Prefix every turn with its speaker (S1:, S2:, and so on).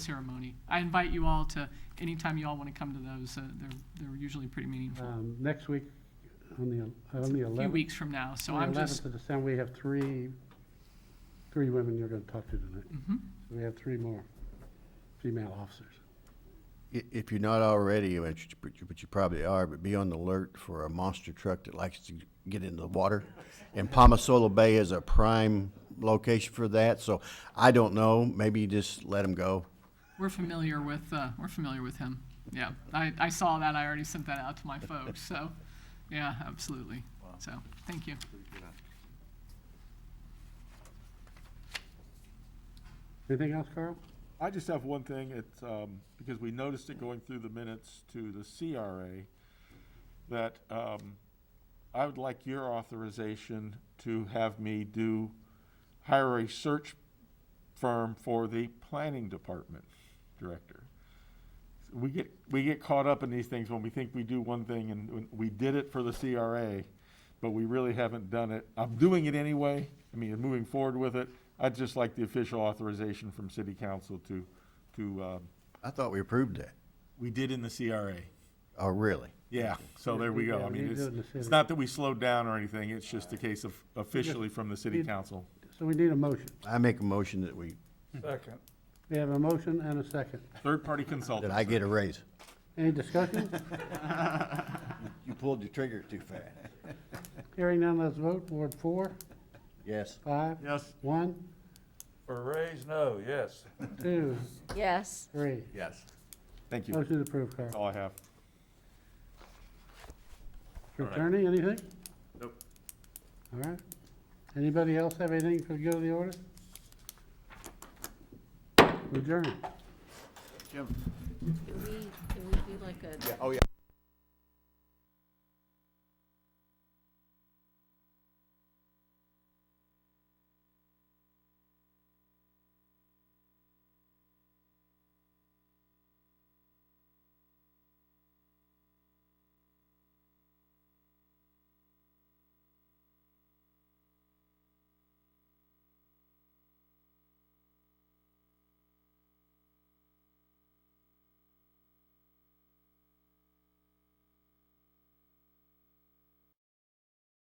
S1: ceremony. I invite you all to, anytime you all want to come to those, uh, they're, they're usually pretty meaningful.
S2: Um, Next week, on the, el- on the
S1: A few
S2: 11th.
S1: weeks from now, so
S2: on the
S1: I'm just,
S2: 11th of December, we have three, three women you're going to talk to tonight.
S1: Mhm.
S2: So we have three more female officers.
S3: I- If you're not already, which you- but you, but you probably are, but be on the alert for a monster truck that likes to get into the water. And Palmasola Bay is a prime location for that, so I don't know, maybe you just let them go.
S1: we're familiar with, uh, we're familiar with him. Yeah, I, I saw that, I already sent that out to my folks, so, yeah, absolutely. So, thank you.
S2: Anything else, Carl?
S4: I just have one thing, it's, um, because we noticed it going through the minutes to the CRA, that, um, I would like your authorization to have me do, hire a search firm for the planning department director. We get, we get caught up in these things when we think we do one thing and when we did it for the CRA, but we really haven't done it. I'm doing it anyway, I mean, and moving forward with it. I'd just like the official authorization from city council to, to, um,
S3: I thought we approved that.
S4: we did in the CRA.
S3: Oh, really?
S4: Yeah, so there we go.
S2: Yeah,
S4: I
S2: we
S4: mean,
S2: did do it in the
S4: it's, it's
S2: city.
S4: not that we slowed down or anything, it's just a case of officially from the city
S2: Did-
S4: council.
S2: So we need a motion.
S3: I make a motion that we,
S5: Second.
S2: We have a motion and a second.
S4: Third-party consultant.
S3: that I get a raise.
S2: Any discussion?
S3: You pulled the trigger too fast.
S2: Hearing none, let's vote. Ward four,
S3: Yes.
S2: five,
S4: Yes.
S2: one,
S5: For raise, no, yes.
S2: two,
S6: Yes.
S2: three.
S3: Yes.
S4: Thank you.
S2: Motion approved,
S4: That's
S2: Carl.
S4: all I have.
S2: Attorney, anything?
S4: Nope.
S2: All right. Anybody else have anything for the good of the order? Adjourn.
S6: Do we, do we do like a
S3: Oh, yeah.